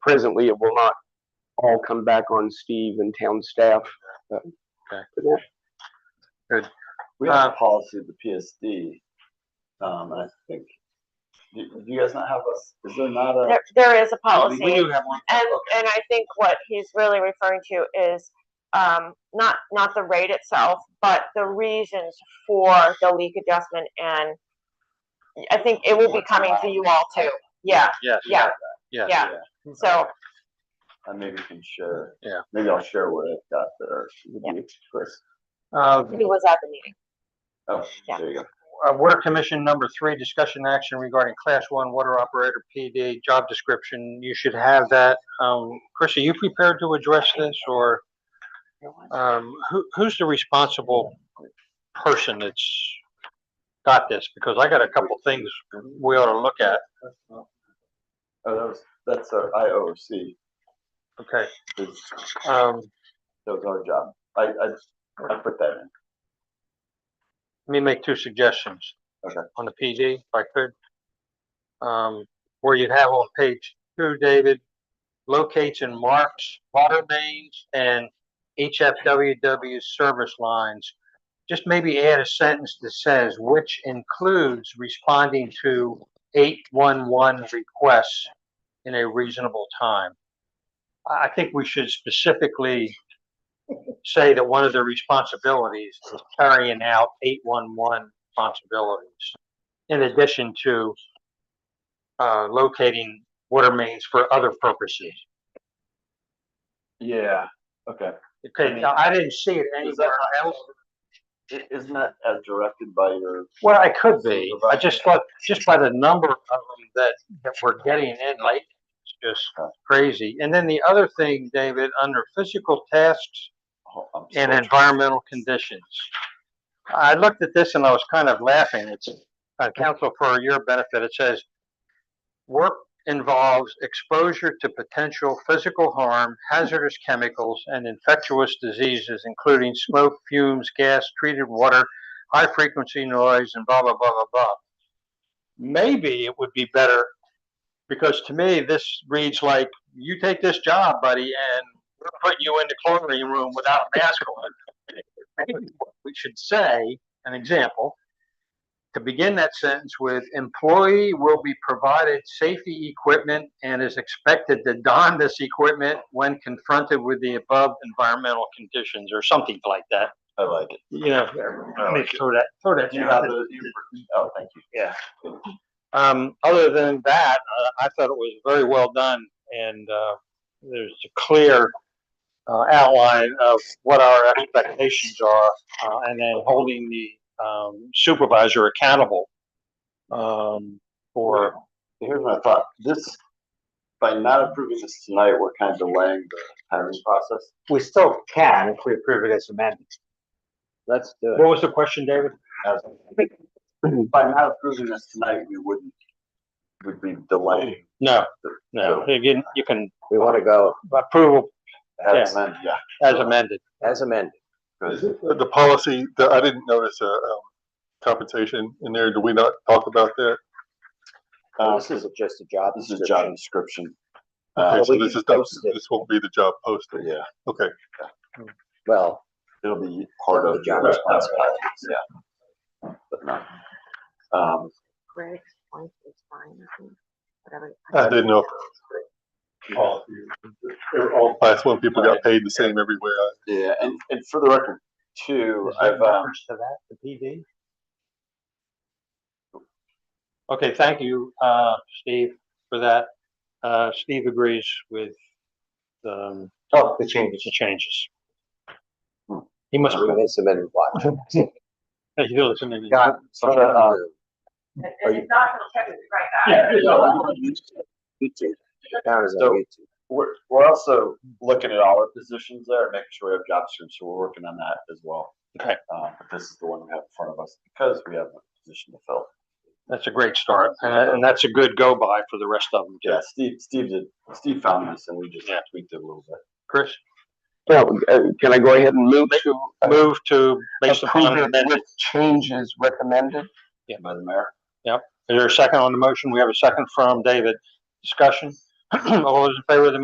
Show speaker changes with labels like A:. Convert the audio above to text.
A: presently, it will not all come back on Steve and town staff. uh,
B: Okay.
A: for that.
C: We have a policy of the PSD, um, and I think, do, do you guys not have a, is there not a? Oh,
D: There, Um, there is a policy.
B: We do have one.
D: And, and I think what he's really referring to is, um, not, not the rate itself, but the reasons for the leak adjustment and I think it will be coming to you all too. Yeah,
B: Yes.
D: yeah,
B: Yes.
D: yeah. So,
C: And maybe you can share.
B: Yeah.
C: Maybe I'll share what I've got there. with you, Chris,
B: Uh,
D: he was at the meeting.
C: oh,
D: Yeah.
C: there you go.
B: uh, Water Commission number three, discussion action regarding class one water operator PD job description. You should have that. Um, Chris, are you prepared to address this or, um, who, who's the responsible person that's got this? Because I got a couple things we ought to look at.
C: Oh, that was, that's our IOC,
B: Okay.
C: is-
B: Um,
C: that was our job. I, I, I put that in.
B: let me make two suggestions.
C: Okay.
B: On the PD, if I could. Um, where you'd have on page two, David, locates and marks water mains and HFWW service lines. Just maybe add a sentence that says, which includes responding to eight-one-one requests in a reasonable time. I, I think we should specifically say that one of their responsibilities is carrying out eight one one responsibilities. In addition to uh, locating water mains for other purposes.
C: Yeah. Okay.
B: Okay, now, I didn't see it
C: Is that
B: anywhere else.
C: I- Isn't that as directed by your,
B: Well, I could be. I just thought, just by the number of them that, that we're getting in lately, it's just crazy. And then the other thing, David, under physical tasks,
C: oh, I'm
B: and
C: sorry.
B: environmental conditions. I looked at this and I was kind of laughing. It's, uh, council for your benefit, it says, work involves exposure to potential physical harm, hazardous chemicals, and infectious diseases, including smoke, fumes, gas, treated water, high frequency noise, and blah, blah, blah, blah, blah. Maybe it would be better, because to me, this reads like, you take this job, buddy, and we're putting you in the clothing room without a mask on. Maybe what We should say, an example, to begin that sentence with, employee will be provided safety equipment and is expected to don this equipment when confronted with the above environmental conditions or something like that.
C: I like it.
B: You know,
C: I like it.
B: throw that, throw that.
C: Do you have the, you- oh, thank you.
B: Um, other than that, uh, I thought it was very well done and, uh, there's a clear, uh, outline of what our expectations are, uh, and then holding the, um, supervisor accountable. Um, for,
C: Here's my thought. This, by not approving this tonight, we're kind of delaying the hiring process.
E: we still can if we approve it as amended.
C: Let's do
B: what was the question, David?
C: By not approving this tonight, we wouldn't, would be delaying.
B: No, no, again, you can
E: We want to go
B: approve
C: As amended, yeah.
B: as amended.
E: as amended.
C: Good.
F: The policy, the- I didn't notice a um, compensation in there. Do we not talk about that?
C: Uh,
E: This is just a job
C: This is a job
E: description.
C: description.
F: Okay,
C: Uh,
F: so
E: we
F: this
E: can
F: is, not-
E: post it.
F: this won't be the job posting.
C: yeah,
F: Okay,
E: Well,
C: it'll be part of
E: The
C: your
E: job
C: responsibilities, yeah. But not, um,
D: Greg's point is fine, I think, whatever.
F: I didn't know. if all- All class one people got paid the same everywhere.
C: yeah, and, and for the record, too,
B: Is there
C: I've, um,
B: reference to that, the PD? Okay, thank you, uh, Steve, for that. Uh, Steve agrees with, um,
E: oh, the
B: the
E: changes.
B: changes.
C: Hmm.
B: He must,
E: It's amended what?
B: he's listening.
E: God,
C: so I'm gonna, uh,
D: And it's not gonna check it right back.
E: Down is on
C: So-
E: YouTube.
C: We're, we're also looking at all our positions there, making sure we have job descriptions, so we're working on that as well.
B: Okay.
C: Uh, but this is the one we have in front of us because we have a position to fill.
B: That's a great start, and, and that's a good go-by for the rest of them, too.
C: Yeah, Steve, Steve did, Steve found this and we just
B: Yeah.
C: tweaked it a little bit.
B: Chris,
A: Well, uh, can I go ahead and move to uh,
B: move to, based upon,
A: approve it
B: amendment.
A: with changes recommended?
C: By the mayor.
B: is there a second on the motion? We have a second from David. Discussion? All those in favor of the